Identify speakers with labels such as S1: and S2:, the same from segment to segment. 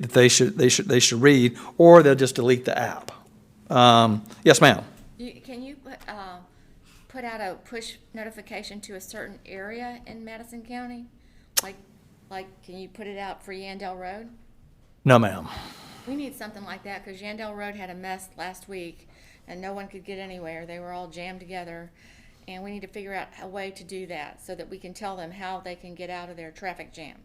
S1: that they should, they should, they should read, or they'll just delete the app. Um, Yes, ma'am.
S2: You- Can you put, uh, put out a push notification to a certain area in Madison County? Like, like, can you put it out for Yandell Road?
S1: No, ma'am.
S2: We need something like that, because Yandell Road had a mess last week, and no one could get anywhere. They were all jammed together. And we need to figure out a way to do that, so that we can tell them how they can get out of their traffic jam.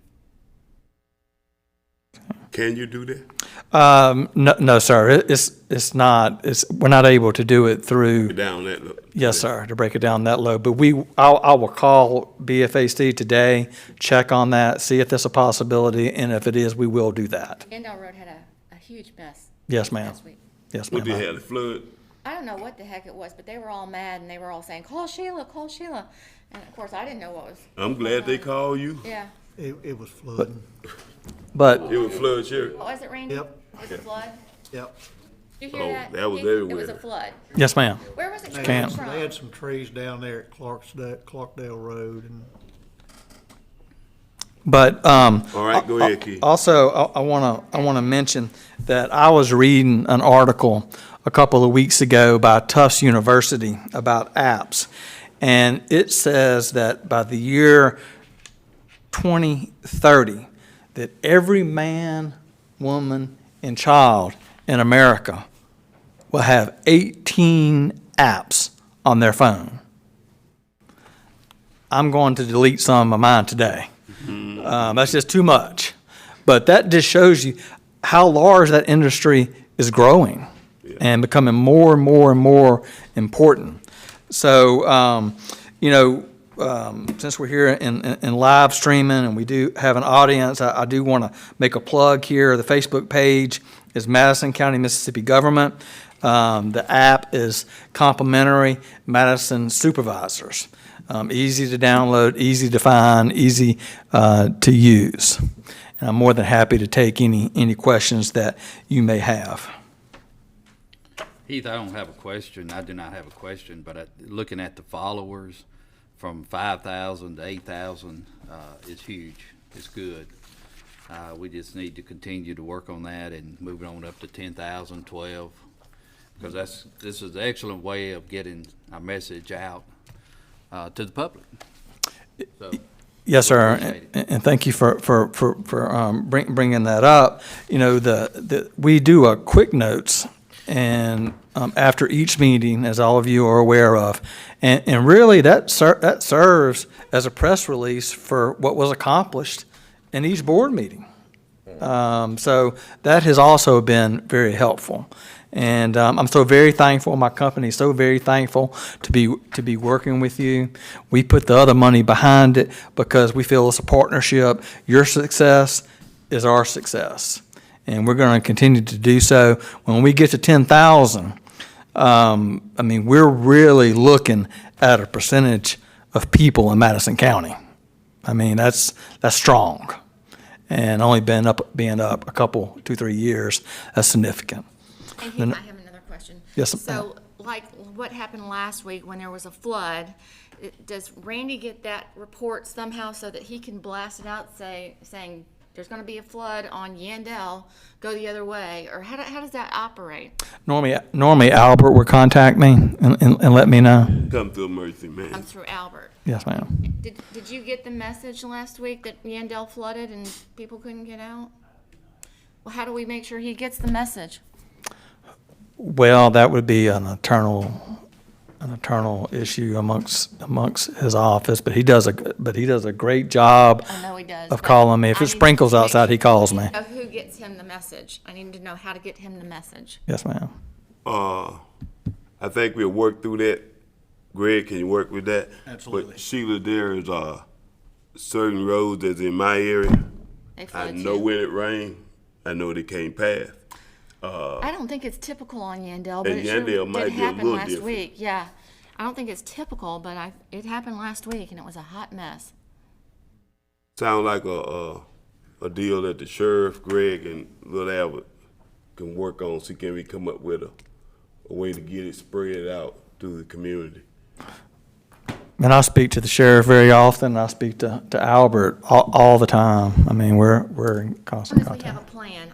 S3: Can you do that?
S1: Um, No, no, sir, It- it's, it's not, it's, we're not able to do it through.
S3: Down that look.
S1: Yes, sir, to break it down that low. But we, I'll, I will call BFAC today, check on that, see if that's a possibility, and if it is, we will do that.
S2: Yandell Road had a, a huge mess
S1: Yes, ma'am.
S2: last week.
S1: Yes,
S3: What
S1: ma'am.
S3: they had, a flood?
S2: I don't know what the heck it was, but they were all mad and they were all saying, "Call Sheila, call Sheila," and of course I didn't know what was.
S3: I'm glad they called you.
S2: Yeah.
S4: It, it was flooding,
S1: But,
S3: It was flood, Sheriff.
S2: Oh, is it raining?
S4: Yep.
S2: Was it flood?
S4: yep.
S2: Did you hear
S3: Oh,
S2: that?
S3: that was
S2: Keith? It was a
S3: everywhere.
S2: flood.
S1: yes, ma'am.
S2: Where was it
S4: They
S2: coming
S4: had,
S1: Can't.
S4: some- they
S2: from?
S4: had some trees down there at Clarksdale, Clarkdale Road and
S1: But, um,
S3: All right, go ahead, Keith.
S1: Also, I want to, I want to mention that I was reading an article a couple of weeks ago by Tufts University about apps. And it says that by the year 2030, that every man, woman, and child in America will have 18 apps on their phone. I'm going to delete some of mine today. Um, that's just too much. But that just shows you how large that industry is growing and becoming more and more and more important. So, um, you know, um, since we're here in, in, in live streaming and we do have an audience, I, I do want to make a plug here. The Facebook page is Madison County, Mississippi Government. Um, the app is complimentary Madison Supervisors. Um, easy to download, easy to find, easy uh, to use. And I'm more than happy to take any, any questions that you may have.
S5: Heath, I don't have a question. I do not have a question, but I- looking at the followers from 5,000 to 8,000 uh, is huge. It's good. Uh, We just need to continue to work on that and move it on up to 10,000, 12, because that's, this is an excellent way of getting our message out uh, to the public. So,
S1: Yes, sir,
S5: appreciate
S1: and- and thank you for, for, for, for um, bring- bringing that up. You know, the, the, we do a quick notes, and um, after each meeting, as all of you are aware of, and, and really, that ser, that serves as a press release for what was accomplished in each board meeting. Um, so that has also been very helpful. And um, I'm so very thankful, my company is so very thankful to be, to be working with you. We put the other money behind it because we feel it's a partnership. Your success is our success. And we're going to continue to do so. When we get to 10,000, um, I mean, we're really looking at a percentage of people in Madison County. I mean, that's, that's strong. And only been up, being up a couple, two, three years, that's significant.
S2: And Heath, I have another question.
S1: Yes, ma'am.
S2: So, like, what happened last week when there was a flood? it- Does Randy get that report somehow so that he can blast it out, say, saying, "There's going to be a flood on Yandell. Go the other way," or how, do- how does that operate?
S1: Normally, normally Albert would contact me and, and, and let me know.
S3: Come to emergency,
S2: I'm
S3: man.
S2: um, through Albert.
S1: Yes, ma'am.
S2: Did, did you get the message last week that Yandell flooded and people couldn't get out? Well, how do we make sure he gets the message?
S1: Well, that would be an eternal, an eternal issue amongst, amongst his office, but he does a, but he does a great job
S2: I know he does.
S1: of
S2: but
S1: calling me. If
S2: I
S1: it
S2: need to
S1: sprinkles
S2: make-
S1: outside, he calls me.
S2: Know who gets him the message. I need to know how to get him the message.
S1: Yes, ma'am.
S3: Uh, I think we'll work through that. Greg, can you work with that?
S4: Absolutely.
S3: But Sheila, there is, uh, certain roads that's in my area.
S2: They
S3: I
S2: flood
S3: know
S2: you.
S3: when it rained, I know they can't pass.
S2: I don't think it's typical on Yandell, but
S3: And
S2: it sure
S3: Yandell might
S2: did
S3: be a
S2: happen
S3: little
S2: last
S3: different.
S2: week. Yeah. I don't think it's typical, but I, it happened last week and it was a hot mess.
S3: Sound like a, a, a deal that the sheriff, Greg, and Little Albert can work on, see can we come up with a, a way to get it spread out through the community.
S1: And I speak to the sheriff very often. I speak to, to Albert all, all the time. I mean, we're, we're in
S2: As
S1: constant
S2: soon as we
S1: contact.
S2: have a plan,